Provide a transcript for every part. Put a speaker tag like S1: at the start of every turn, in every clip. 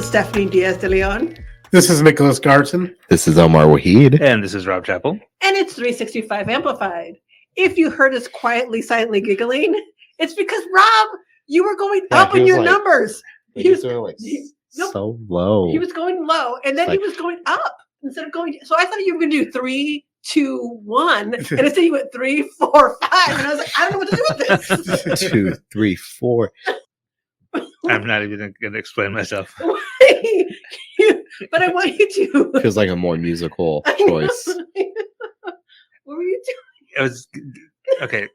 S1: Stephanie Diaz de Leon.
S2: This is Nicholas Garson.
S3: This is Omar Wahid.
S4: And this is Rob Chappell.
S1: And it's 365 Amplified. If you heard us quietly, silently giggling, it's because Rob, you were going
S3: Yeah,
S1: up
S3: he
S1: in
S3: was
S1: your
S3: like-
S1: numbers.
S3: He
S1: He was-
S3: was doing like
S1: he- nope.
S3: so low.
S1: He was going low and then
S3: It's
S1: he
S3: like-
S1: was going up instead of going. So I thought you were going to do three, two, one. And instead you went three, four, five. And I was like, I don't know what to do with this.
S3: Two, three, four.
S4: I'm not even going to explain myself.
S1: but I want you to.
S3: Feels like a more musical
S1: I know.
S3: choice.
S1: what were you
S4: It was okay.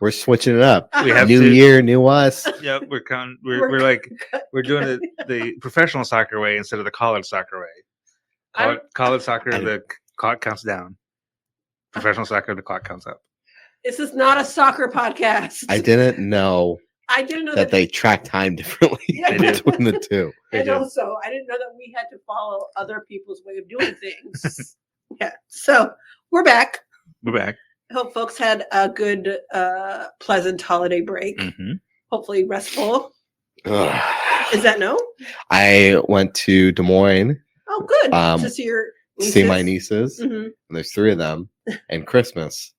S3: We're switching it up.
S1: doing?
S4: We have-
S3: New
S4: to-
S3: year, new us.
S4: Yeah, we're con- we're,
S1: We're
S4: we're, like we're doing the, the professional soccer way instead of the college soccer way.
S1: I'm-
S4: College, college soccer,
S3: I'm-
S4: the c- clock counts down. Professional soccer, the clock counts up.
S1: This is not a soccer podcast.
S3: I didn't know
S1: I didn't know
S3: that they track time differently
S1: Yeah.
S4: They do.
S3: between the two.
S4: They
S1: and
S4: do.
S1: also I didn't know that we had to follow other people's way of doing things. yeah. So we're back.
S4: We're back.
S1: I hope folks had a good, uh, pleasant holiday break.
S3: Mm.
S4: Mm-hmm.
S1: Hopefully restful.
S3: Ugh.
S1: Is that no?
S3: I went to Des Moines
S1: Oh, good.
S3: Um,
S1: to see your
S3: to see my
S1: nieces?
S3: nieces.
S1: Mhm.
S3: And there's three of them. And Christmas,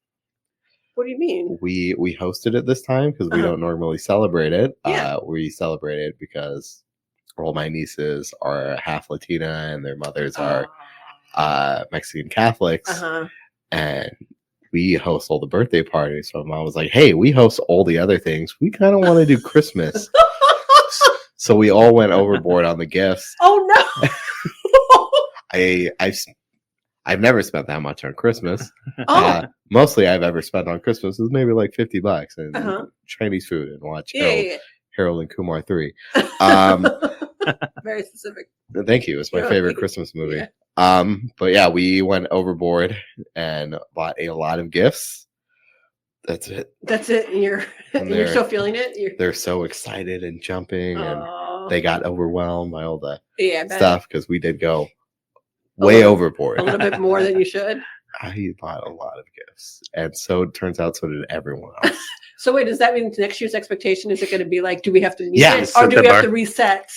S1: What do you mean?
S3: we we hosted it this time because we
S1: Uh-huh.
S3: don't normally celebrate it.
S1: Yeah.
S3: Uh, we celebrate it because all my nieces are half Latina and their mothers are
S1: Oh.
S3: uh, Mexican Catholics,
S1: Uh huh.
S3: and we host all the birthday parties. So my mom was like, "Hey, we host all the other things. We kind of want to do Christmas." so we all went overboard on the gifts.
S1: oh no.
S3: I I've s- I've never spent that much on Christmas.
S1: oh.
S3: Uh, mostly I've ever spent on Christmas is maybe like fifty bucks and
S1: uh-huh.
S3: Chinese food and watch
S1: Yeah,
S3: Harold,
S1: yeah,
S3: Harold and Kumar three.
S1: yeah.
S3: Um,
S1: Very specific.
S3: Thank you. It's my
S1: Yeah.
S3: favorite Christmas movie.
S1: Yeah.
S3: Um, but yeah, we went overboard and bought a lot of gifts. That's it.
S1: That's it. And you're
S3: And
S1: you're
S3: they're-
S1: still feeling it. You're,
S3: They're so excited and jumping, and
S1: Oh.
S3: they got overwhelmed by all the
S1: yeah, I bet.
S3: stuff because we did go way
S1: little-
S3: overboard.
S1: a little bit more than you should.
S3: I bought a lot of gifts, and so it turns out so did everyone else.
S1: So wait, does that mean next year's expectation is it going to be like, do we have to meet
S3: Yeah,
S1: it,
S4: set
S1: or do
S4: the
S1: we have
S4: bar.
S1: to reset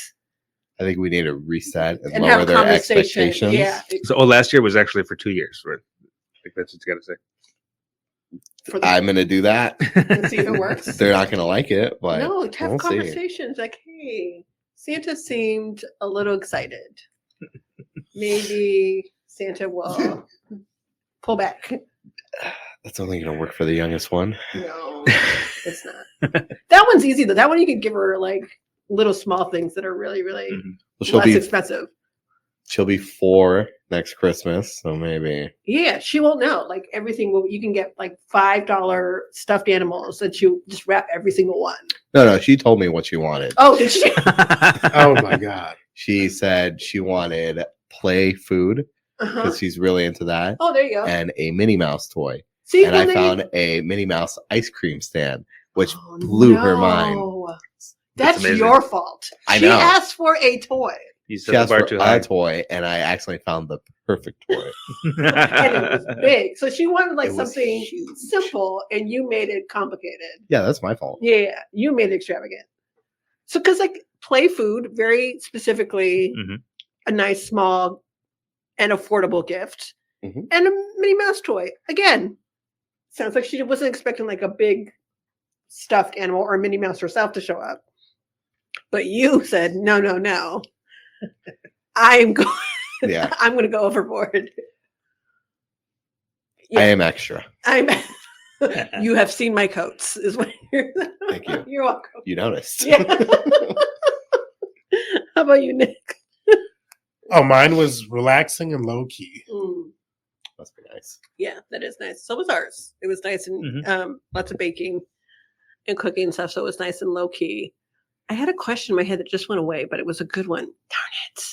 S3: I think we need to reset and,
S1: and
S3: lower
S1: have
S3: their
S1: conversation?
S3: expectations.
S1: Yeah,
S4: So, oh, last year was actually for two years. Right? I think that's what you got to say.
S1: for the,
S3: I'm gonna do that.
S1: and see if it works.
S3: They're not gonna like it, but
S1: no, to have
S3: we'll see.
S1: conversations like, hey, Santa seemed a little excited. Maybe Santa will pull back.
S3: that's only gonna work for the youngest one.
S1: No, it's not. That one's easy though. That one you can give her like little small things that are really, really
S4: Mhm.
S3: Well, Mm-hmm. she'll
S1: less
S3: be
S1: expensive.
S3: she'll be four next Christmas, so maybe
S1: Yeah, she won't know. Like everything will you can get like five dollar stuffed animals that you just wrap every single one.
S3: no, no. She told me what she wanted.
S1: Oh, did she?
S2: Oh my God.
S3: She said she wanted play food
S1: Uh-huh.
S3: because she's really into that,
S1: Oh, there you go.
S3: and a Minnie Mouse toy.
S1: See,
S3: And
S1: well,
S3: I
S1: there you-
S3: found a Minnie Mouse ice cream stand, which
S1: Oh,
S3: blew her mind.
S1: no. That's
S4: amazing.
S1: your fault.
S3: I
S1: she
S3: know.
S1: asked for a toy.
S4: you
S3: she
S4: set the
S3: asked
S4: bar
S3: for
S4: too
S3: a
S4: high.
S3: toy, and I accidentally found the perfect toy.
S1: And it was big. So she wanted like
S3: It was
S1: something
S3: huge.
S1: simple and you made it complicated.
S3: yeah, that's my fault.
S1: Yeah, you made it extravagant. So, because like play food, very specifically,
S3: Mm-hmm.
S4: Mhm.
S1: a nice, small, and affordable gift,
S3: Mhm.
S1: and a Minnie Mouse toy. Again, sounds like she wasn't expecting like a big stuffed animal or Minnie Mouse herself to show up. But you said no, no, no. I'm going.
S3: Yeah,
S1: I'm going to go overboard. Yeah.
S3: I am extra.
S1: I'm. you have seen my coats, is what you're.
S3: Thank you.
S1: You're welcome.
S3: You noticed.
S1: Yeah. How about you, Nick?
S2: Oh, mine was relaxing and low key.
S3: Must be nice.
S1: yeah, that is nice. So was ours. It was nice and
S4: Mhm.
S1: um, lots of baking and cooking and stuff. So it was nice and low key. I had a question in my head that just went away, but it was a good one. Darn it.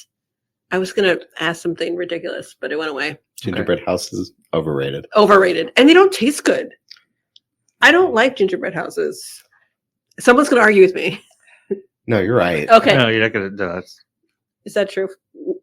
S1: I was going to ask something ridiculous, but it went away.
S3: Gingerbread house is overrated.
S1: Overrated. And they don't taste good. I don't like gingerbread houses. Someone's going to argue with me.
S3: No, you're right.
S1: Okay.
S4: No, you're not gonna. No, that's
S1: Is that true?